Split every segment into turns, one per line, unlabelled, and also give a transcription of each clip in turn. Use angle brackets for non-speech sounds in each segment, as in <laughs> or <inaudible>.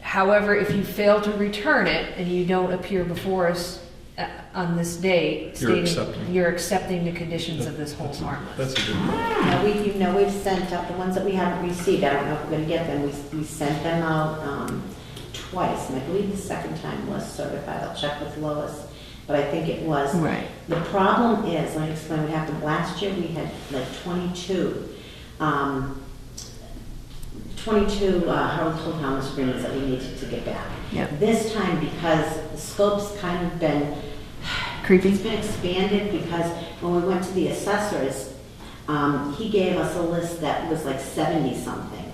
However, if you fail to return it and you don't appear before us uh, on this date,
You're
stating
accepting.
you're accepting the conditions of this hold harmless.
That's a good one.
Now, we, you know, we've sent out, the ones that we haven't received, I don't know if we're gonna get them, we, we sent them out, um, twice, and I believe the second time was certified, I'll check with Lois, but I think it was.
Right.
The problem is, let me explain what happened, last year we had like twenty-two, um, twenty-two, uh, Harold Holt Thomas agreements that we needed to get back.
Yeah.
This time, because the scope's kind of been,
Creepy?
it's been expanded because when we went to the assessors, um, he gave us a list that was like seventy-something,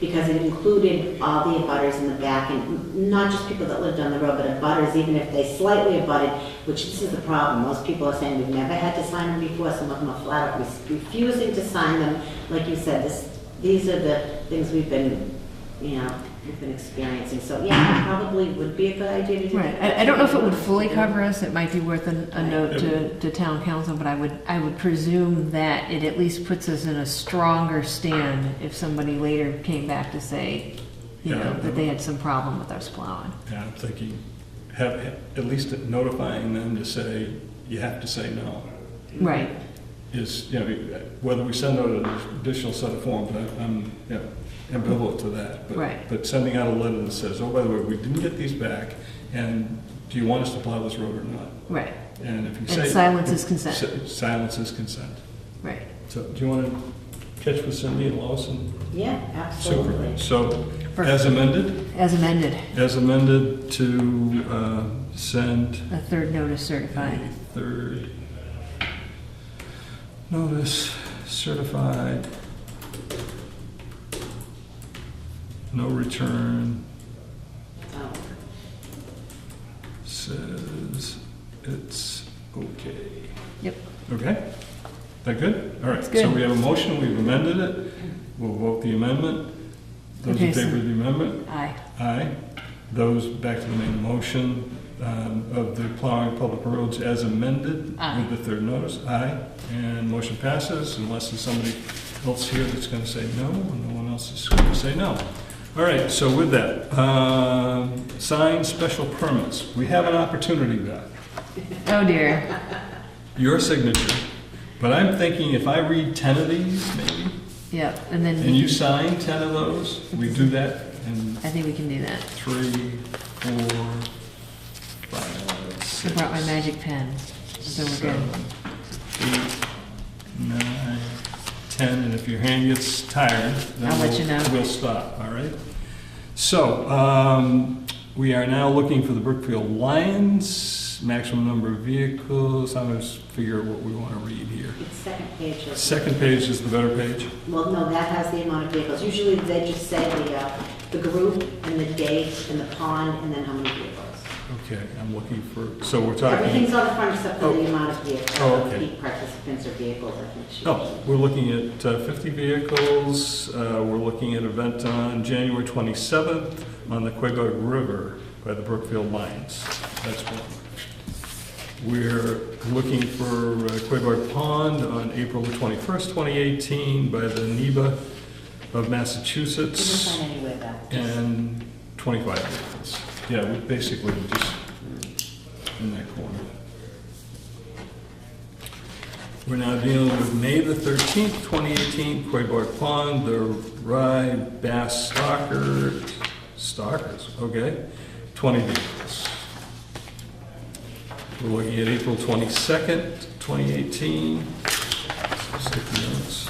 because it included all the abutters in the back, and not just people that lived on the road, but abutters, even if they slightly abutted, which this is the problem, most people are saying, we've never had to sign them before, some of them are flat out re- refusing to sign them, like you said, this, these are the things we've been, you know, we've been experiencing, so yeah, probably would be a good idea to do.
Right, I, I don't know if it would fully cover us, it might be worth a, a note to, to town council, but I would, I would presume that it at least puts us in a stronger stand if somebody later came back to say, you know,
Yeah.
that they had some problem with us plowing.
Yeah, I'm thinking, have, at least notifying them to say, you have to say no.
Right,
Is, you know, whether we send out an additional set of forms, I- I'm, you know, ambivalent to that. but-
Right.
But sending out a letter that says, oh, by the way, we didn't get these back, and do you want us to plow this road or not?
right,
And if you say.
and silence
<laughs>
is consent,
Si- Silence is consent.
right.
So do you want to catch with Cindy and Lois and
Yeah,
Super?
absolutely.
So
For-
as amended?
As amended,
As amended to uh, send
a third notice certified.
a third notice certified, no return,
Oh,
says it's okay.
Yep.
Okay? That good? All right,
It's
so
good.
we have a motion, we've amended it, we'll vote the amendment. Those in
Okay, so-
favor of the amendment?
Aye.
Aye. Those, back to the main motion um, of the plowing public roads as amended
Aye.
with the third notice. Aye. And motion passes unless there's somebody else here that's going to say no, and no one else is going to say no. All right, so with that, um, sign special permits. We have an opportunity, Beth,
Oh dear.
your signature. But I'm thinking if I read 10 of these, maybe,
Yep, and
and
then
you sign 10 of those, we do that and
I think we can do that.
three, four, five,
I
six,
brought my magic pen, so we're
seven,
good.
eight, nine, ten, and if your hand gets tired, then
I'll let you
we'll,
know.
we'll stop, all right? So, um, we are now looking for the Brookfield Lions, maximum number of vehicles, I'm gonna figure out what we wanna read here.
It's second page of.
Second page is the better page.
Well, no, that has the amount of vehicles. Usually they just say the, uh, the group and the date and the pond and then how many vehicles.
Okay, I'm looking for, so we're talking,
Everything's on the front except for the amount of vehicles,
Oh, okay.
peak participants or vehicles, I think. she-
Oh, we're looking at uh, 50 vehicles. Uh, We're looking at event on January 27th on the Quabog River by the Brookfield Lions. That's one. We're looking for uh, Quabog Pond on April the 21st, 2018 by the NEBA of
You can
Massachusetts
sign anywhere though.
and uh, 25 vehicles. Yeah, we basically we're just in that corner. We're now dealing with May the 13th, 2018, Quayborg Pond, the Rye Bass Stalker, Stalkers, okay, 20 vehicles. We're looking at April 22nd, 2018. Sticky notes.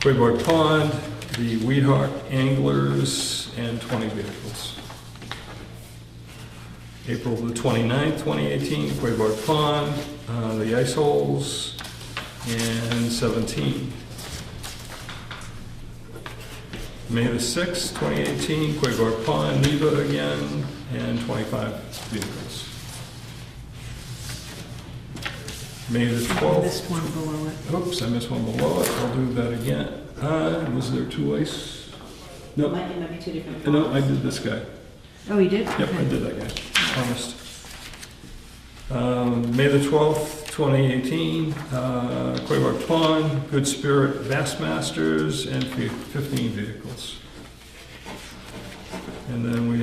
Quayborg Pond, the Weed Hawk Anglers, and 20 vehicles. April the 29th, 2018, Quayborg Pond, uh, the Ice Holes, and 17. May the 6th, 2018, Quayborg Pond, Neva again, and 25 vehicles. May the
I
12th,
missed one below it.
Oops, I missed one below it. I'll do that again. Uh, was there two ice?
It
No,
might, it might be two different.
no, I
ponds.
did this guy.
Oh, you did?
Yep, I
Okay.
did that guy. Promised. Um, May the 12th, 2018, uh, Quayborg Pond, Good Spirit Bassmasters, and fif- 15 vehicles. And then we